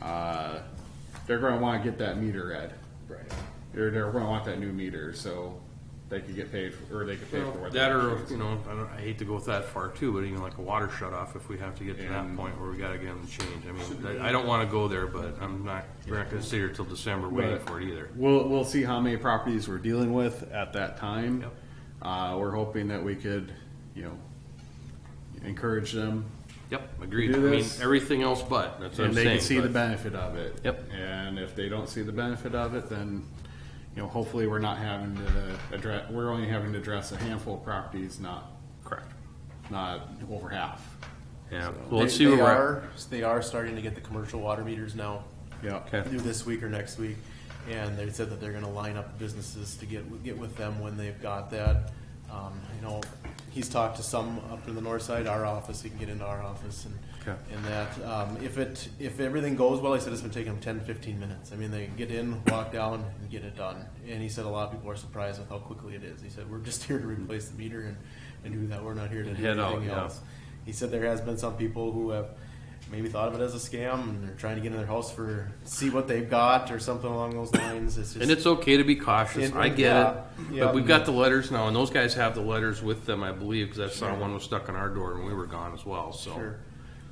uh, they're gonna wanna get that meter read. Right. They're, they're gonna want that new meter, so they could get paid, for- or they could pay for what. That they or, choose. you know, I don't, I hate to go that far too, but even like a water shut off, if we have to get to that And- point where we gotta get them to change, I mean, I I don't wanna go there, but I'm not, we're not gonna sit here till December waiting But for it either. We'll, we'll see how many properties we're dealing with at that time. Yep. Uh, we're hoping that we could, you know, encourage them Yep, agreed, I Do mean, this. everything else but, that's what I'm and they saying. can see the but- benefit of it. Yep. And if they don't see the benefit of it, then, you know, hopefully we're not having to address, we're only having to address a handful of properties, not, Correct. not over half. Yeah, well, let's They- see where they we're at. are, They are starting to get the commercial water meters now, Yeah. Okay. either this week or next week. And they said that they're gonna line up businesses to get, get with them when they've got that. Um, you know, he's talked to some up in the north side, our office, he can get into our office and, Okay. and that, um, if it, if everything goes well, he said it's been taking them ten, fifteen minutes. I mean, they get in, walk down, and get it done. And he said a lot of people are surprised with how quickly it is. He said, we're just here to replace the meter and, and do that. We're not here to do Head out, anything yeah. else. He said there has been some people who have maybe thought of it as a scam and they're trying to get in their house for see what they've got or something along those lines. It's just And it's okay to be cautious. And- I and- get yeah, it. yeah. But we've got the letters now, and those guys have the letters with them, I believe, because I saw one was stuck on our door and we were gone as well, so. sure.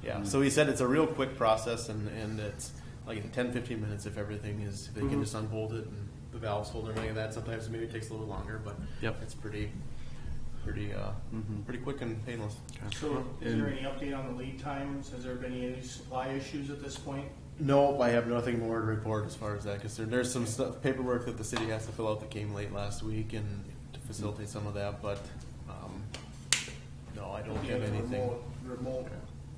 Yeah. So he said it's a real quick process and, and it's like in 10, 15 minutes if everything is if they Mm-hmm. can just unbolt it and the valves hold and everything like that. Sometimes maybe it takes a little longer, but Yep. Mm-hmm. it's pretty pretty uh, pretty quick and painless. So is there any update on the lead times? Has there been any supply issues at this point? Nope, I have nothing more to report as far as that concerned. There's some stuff, paperwork that the city has to fill out that came late last week and to facilitate some of that, but, um, no, I don't have The anything. remote- Remote,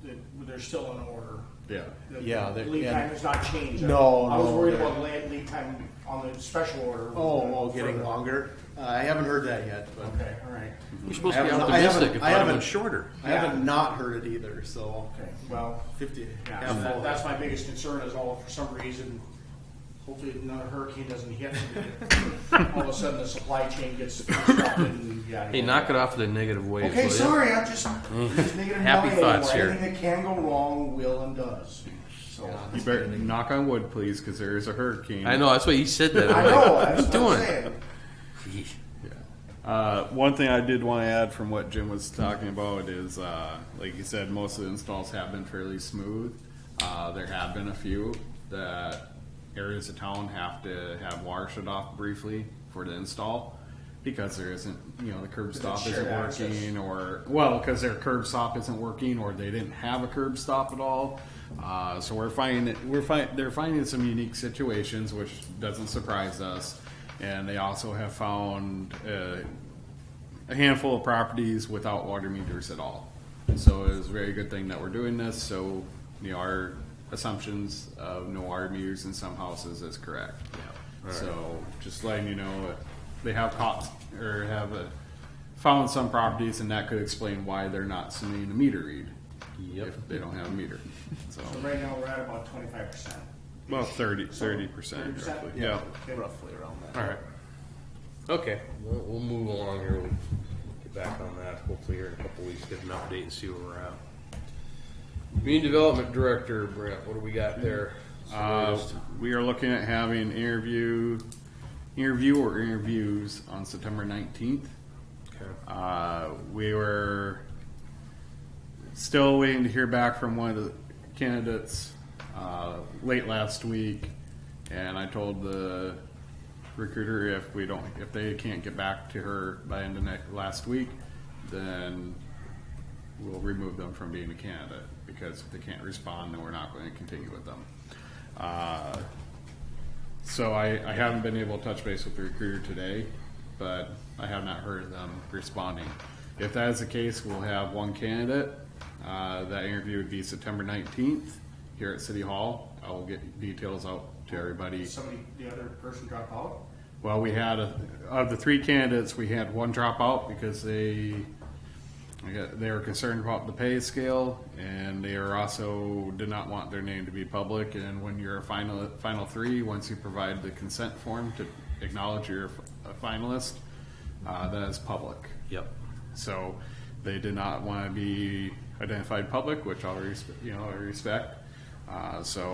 that- they're still on order. Yeah. The Yeah, they're- Lead and- time has not changed. No, I was no, worried they're- about lead, lead time on the special order. Oh, oh, getting For- longer? Uh, I haven't heard that yet, but Okay, all right. You're supposed to be I haven't- I optimistic. haven't- If I I had been haven't- shorter. I haven't not heard it either, so Okay, well, fifty. yeah, half that- full. that's my biggest concern is all, for some reason, hopefully another hurricane doesn't hit. All of a sudden, the supply chain gets disrupted and yada, Hey, yada, knock yada. it off with a negative wave. Okay, will ya? sorry, I'm just, I'm just making a Mm. Happy note thoughts anymore. here. Anything that can go wrong will and does. So You better knock on wood, please, because there is a hurricane. I know, that's why you said that. I I'm like, know. what are That's you what doing? I'm saying. Yeesh. Uh, one thing I did want to add from what Jim was talking about is, uh, like you said, most of the installs have been fairly smooth. Uh, there have been a few that areas of town have to have water shut off briefly for the install because there isn't, you know, the curb stop shared isn't access. working or, well, because their curb stop isn't working or they didn't have a curb stop at all. Uh, so we're finding, that- we're find, they're finding some unique situations, which doesn't surprise us. And they also have found, uh, a handful of properties without water meters at all. So it's a very good thing that we're doing this, so, you know, our assumptions of no water meters in some houses is correct. So, just letting you know, uh, they have caught, or have uh, found some properties, and that could explain why they're not submitting a meter read. If they don't have a meter, so, So right now we're at about 25 percent. well, thirty, thirty percent roughly, yeah. Roughly around that. All right. Okay, we'll, we'll move along here. We'll get back on that hopefully here in a couple weeks, get an update and see where we're at. Community Development Director, Brent, what do we got there? Uh, we are looking at having interview, interview or interviews on September nineteenth. Okay. Uh, we were still waiting to hear back from one of the candidates uh, late last week, and I told the recruiter if we don't, if they can't get back to her by end of next last week, then we'll remove them from being a candidate because if they can't respond, then we're not going to continue with them. Uh, so I, I haven't been able to touch base with the recruiter today, but I have not heard them responding. If that is the case, we'll have one candidate. Uh, that interview would be September nineteenth here at City Hall. I will get details out to everybody. Did somebody, the other person drop out? Well, we had, a- of the three candidates, we had one drop out because they, I got- they were concerned about the pay scale, and they are also, did not want their name to be public, and when you're a final, final three, once you provide the consent form to acknowledge you're a finalist, uh, that is public. Yep. So they did not want to be identified public, which I'll, res- you know, I respect. Uh, so